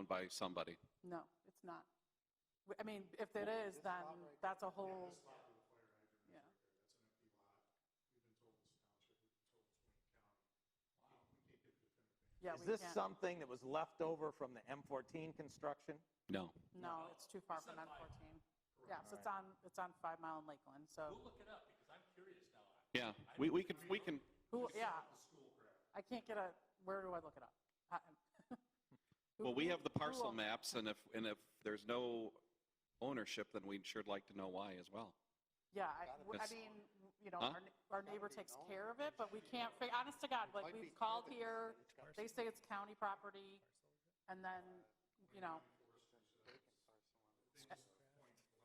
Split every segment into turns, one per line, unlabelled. by somebody.
No, it's not. W- I mean, if it is, then that's a whole, yeah. Yeah,
Is
we
this
can't.
something that was left over from the M14 construction?
No.
No, it's too far from M14. Yeah, so it's on, it's on Five Mile and Lakeland, so,
Yeah, we, we can, we can,
who, yeah. I can't get a, where do I look it up? I- who-
well, we
who-
have the
who
parcel
owns it?
maps, and if, and if there's no ownership, then we'd sure like to know why as well.
Yeah, I, w- I
That's-
mean, you know,
Huh?
our, ne- our neighbor takes care of it, but we can't, fi- honest to God, like, we've called here, they say it's county property, and then, you know,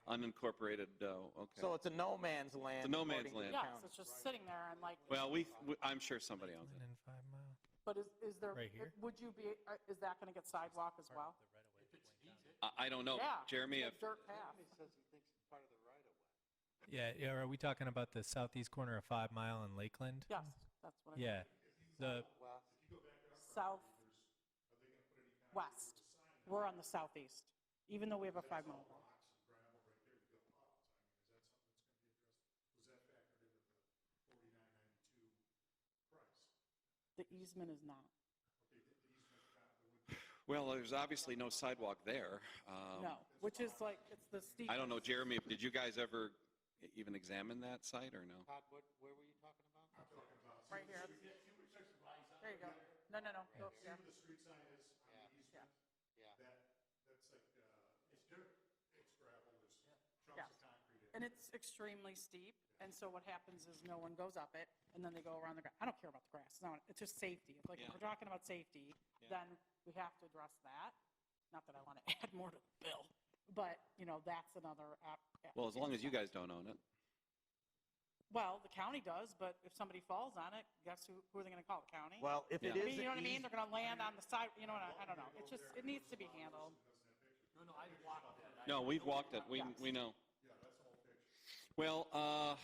Unincorporated, uh, okay.
So it's a no man's
a
land.
no man's land.
according to the
yes,
county.
it's just sitting there and like,
Well, we, we- I'm sure somebody owns it.
Lakeland and Five Mile.
but is, is there,
Right here?
would you be, uh, is that gonna get sidewalk as well?
I, I don't know.
Yeah,
Jeremy,
the
if,
Dirt path,
Yeah, yeah. Are we talking about the southeast corner of Five Mile and Lakeland?
yes, that's what I mean,
Yeah. The
south, west, we're on the southeast, even though we have a five mile. The easement is not.
well, there's obviously no sidewalk there. Um,
No, which is like, it's the steep.
I don't know, Jeremy, did you guys ever e-, even examine that site or no?
Todd, what, where were you talking about?
Right here. There you go. No, no, no, go up here. Yeah. And it's extremely steep, and so what happens is no one goes up it, and then they go around the grass. I don't care about the grass, no, it's just safety. Like, if
Yeah.
we're talking about safety,
Yeah.
then we have to address that. Not that I want to add more to the bill, but, you know, that's another. app-
Well, as long as you
application.
guys don't own it.
Well, the county does, but if somebody falls on it, guess who, who are they going to call, the county?
Well, if
Yeah.
it
I
is.
mean, you know what
an
I mean?
eas-
They're gonna land on the side, you know, what I I don't know. It's just, it needs to be handled.
No, we've walked it. We, we know. Well, uh,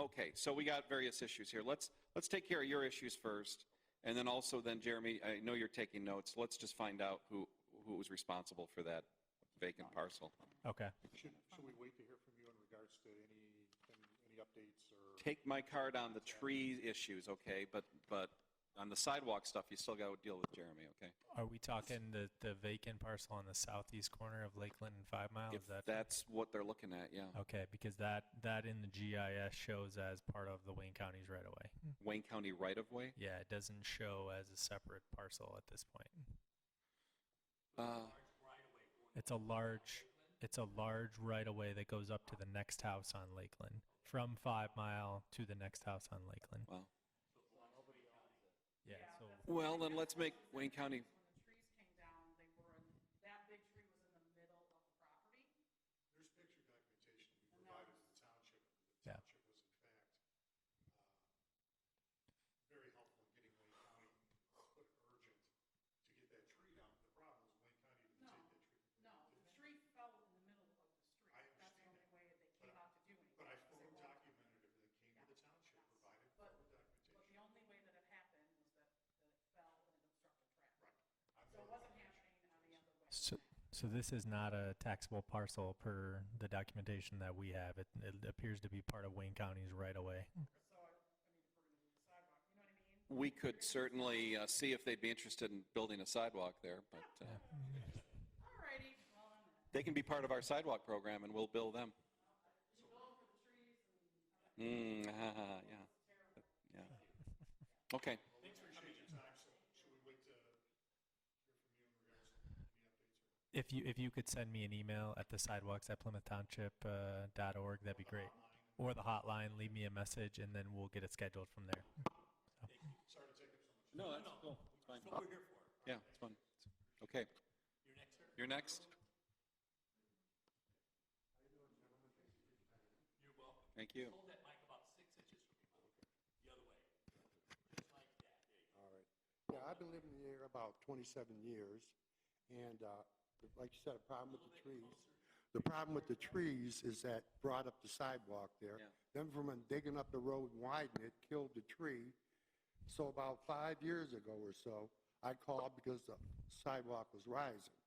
okay, so we got various issues here. Let's, let's take care of your issues first. And then also then Jeremy, I know you're taking notes. Let's just find out who, who was responsible for that vacant parcel.
okay.
Should, should we wait to hear from you in regards to any, any updates or?
Take my card on the tree issues, okay? But, but on the sidewalk stuff, you still got to deal with Jeremy, okay?
Are we talking the the vacant parcel on the southeast corner of Lakeland and Five Mile?
If
Is that
that's what they're looking at, yeah.
okay? Because that that in the GIS shows as part of the Wayne County's right away.
Wayne County right of way?
Yeah, it doesn't show as a separate parcel at this point.
Uh,
It's a large it's a large right of way that goes up to the next house on Lakeland from Five Mile to the next house on Lakeland.
Wow.
Yeah. So
Well, then let's make Wayne County,
The trees came down, they were, in- that big tree was in the middle of the property.
uh,
No, the tree fell in the middle of the street. That's the only way they came out to do anything. But I fully documented it, they came to the township, provided But the only way that it happened was that it fell and it obstructed traffic. So it wasn't happening any other way.
So, so this is not a taxable parcel per the documentation that we have. It, it appears to be part of Wayne County's right away.
we could certainly uh, see if they'd be interested in building a sidewalk there, but uh,
Alrighty, well, I'm
they can be part of our sidewalk program and we'll bill them. Mm, yeah, yeah. Okay.
If you, if you could send me an email at the sidewalks at Plymouth Township, uh, dot org, that'd be great. Or the hotline, leave me a message and then we'll get it scheduled from there.
No, that's cool. It's fine. That's what we're here for. Yeah, it's fun. Okay. You're next? You're next? Thank you.
All right. Yeah, I've been living here about 27 years, and uh, like you said, a problem with the trees. The problem with the trees is that brought up the sidewalk there.
Yeah.
Then from digging up the road and widening it, killed the tree. So about five years ago or so, I called because the sidewalk was rising.